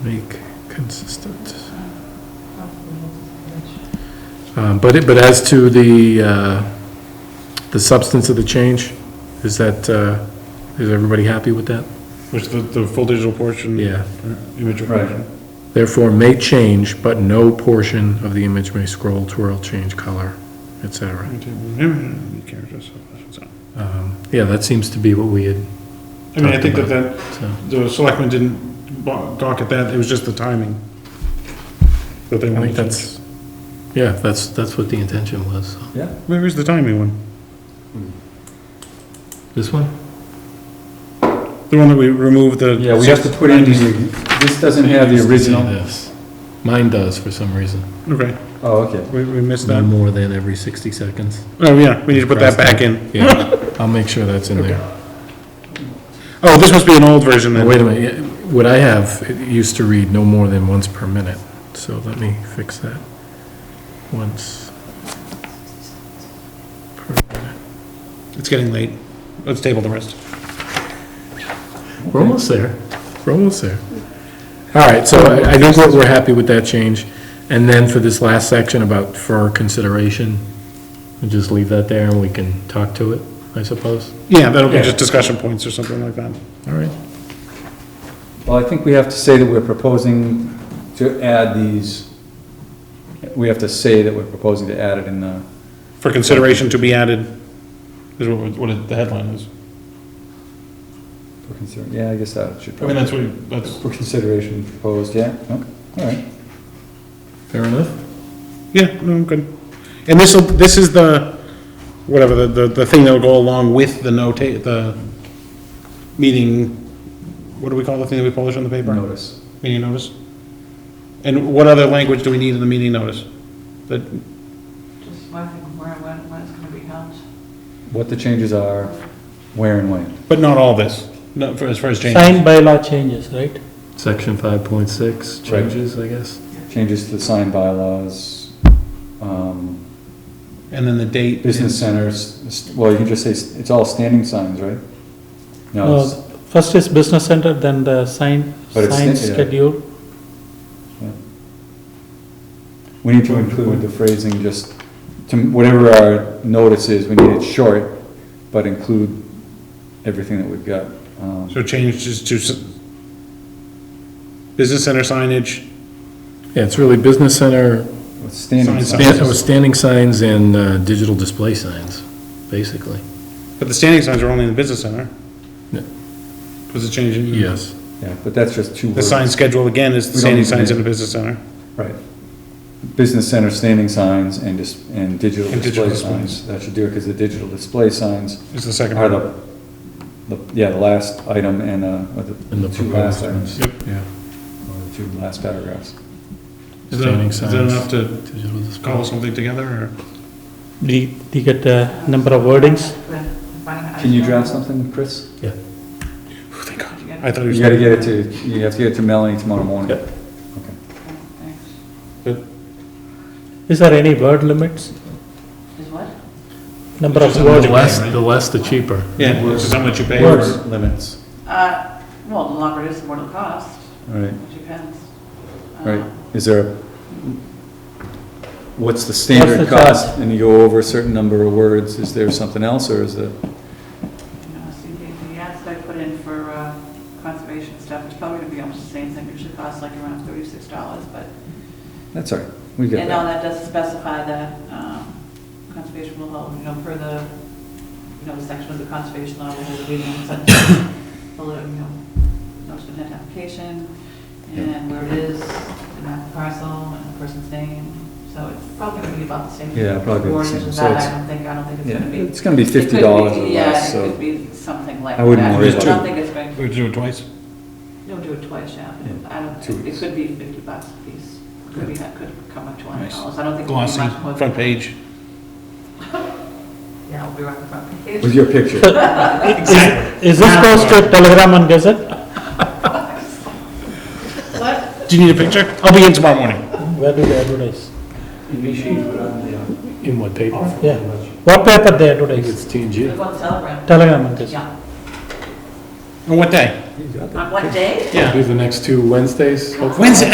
Make consistent. Um, But, it- but as to the, uh, the substance of the change, is that, uh, is everybody happy with that? Which the, the full digital portion? Yeah. Image Right. version. Therefore, may change, but no portion of the image may scroll, twirl, change color, et cetera. Characters. so- Um, Yeah, that seems to be what we had, I mean, I think that that, so, the selectmen didn't bo- gawk at that, it was just the timing. That they I wanted think to that's, yeah, that's, that's what the intention was. so. Yeah, change. Where is the timing one? This one? The one that we removed the. yeah, we have to put in, the- this doesn't have the original, This. Mine does, for some reason. Okay, oh, okay. we, we missed No that. more than every 60 seconds. Oh, yeah, we need to put that back in. Yeah, I'll make sure that's in there. Oh, this must be an old version Now, then. Wait a minute, yeah, what I have, it used to read no more than once per minute, so let me fix that. Once per minute. It's getting late. Let's table the rest. We're almost there, we're almost there. All right, so I I think we're, we're happy with that change. And then for this last section about for consideration, we'll just leave that there and we can talk to it, I suppose. Yeah, that'll be Yeah. just discussion points or something like that. All right, Well, I think we have to say that we're proposing to add these, we have to say that we're proposing to add it in the, For consideration to be added, is what, we're- what it- the headline is. for consider, yeah, I guess that should I mean, probably, that's what, you- that's, for consideration proposed, yeah, okay, all right. fair enough? yeah, no, I'm good. And this will, this is the, whatever, the, the, the thing that'll go along with the notate, the meeting, what do we call the thing that we publish on the paper? Notice. Meeting notice? And what other language do we need in the meeting notice? That, Just wondering where, when, when it's gonna be held. What the changes are, where and when. but not all this, not for, as far as changes. Signed by law changes, right? Section 5.6 Right. changes, I guess? Changes to the sign bylaws, um, And then the date. business centers, s- well, you can just say, s- it's all standing signs, right? No, No, it's- Uh, First is business center, then the sign, But it's- sign yeah. schedule. We need to include the phrasing, just, to, whatever our notice is, we need it short, but include everything that we've got. Um, So changes to s- business center signage, Yeah, it's really business center, with Standing Sign Stan- oh, signs. Standing signs and uh, digital display signs, basically. but the standing signs are only in the business center. Yeah. Was it changing? Yes. Yeah, but that's just two The words. sign schedule again is the We standing don't need to signs in the name business center. Right. Business center standing signs and dis, and digital And digital display displays. signs. That should do it, because the digital display signs Is the second are part. the, the, yeah, the last item and, uh, or And the the two last proposed ones. items, Yep. Yeah. or the two last paragraphs. Is that Standing is that enough signs. to Digital display. cobble something together or? They, they get a number of wordings. Can you draft something, Chris? Oh, Thank God. I thought he was. You gotta get it to, you have to get it to Melanie tomorrow morning. Yep. Okay. Thanks. Is there any word limits? Is what? Number of Just a The word. words? less, the less, the cheaper. Yeah, which is how much you pay. Word limits, Uh, well, the longer it is, the more it'll cost, all right, it depends. all right. Uh, Is there, a- what's the standard What's the cost? And you go over a certain number of words, is there something else, or is it? You know, see, the, the ads I put in for, uh, conservation stuff, it's probably gonna be almost the same thing, it should cost like around thirty-six dollars, but, That's all right, we get and all that. that does specify that, um, conservation will hold, you know, per the, you know, the section of the conservation law, will hold a meeting, and such, will, you know, notice of intent application, and where it is, and that parcel, and the person's name, so it's probably gonna be about the same. Yeah, probably the Or same, just so that, it's- I don't think, I don't think it's Yeah, gonna be. it's gonna be It could fifty dollars or be- yeah, less, It so. could be something like that. I wouldn't worry I about don't think it's going, We do it twice. don't do it twice, yeah, Yeah, but I don't, two it weeks. could be fifty bucks a piece. Could be, that could come up to one hundred Nice. dollars, I don't think it'll be Glossy, much more. than front that. page. Yeah, it'll be right in front page. With your picture, Is this goes to Telegram and Gazette? What? Do you need a picture? I'll be in tomorrow morning. Where do they advertise? In what paper? Yeah. What paper they I think advertise? it's TNG. Go on Telegram. Telegram and Gazette. Yeah, And what day? on what day? Yeah. Do the next two Wednesdays, hopefully. Wednesday,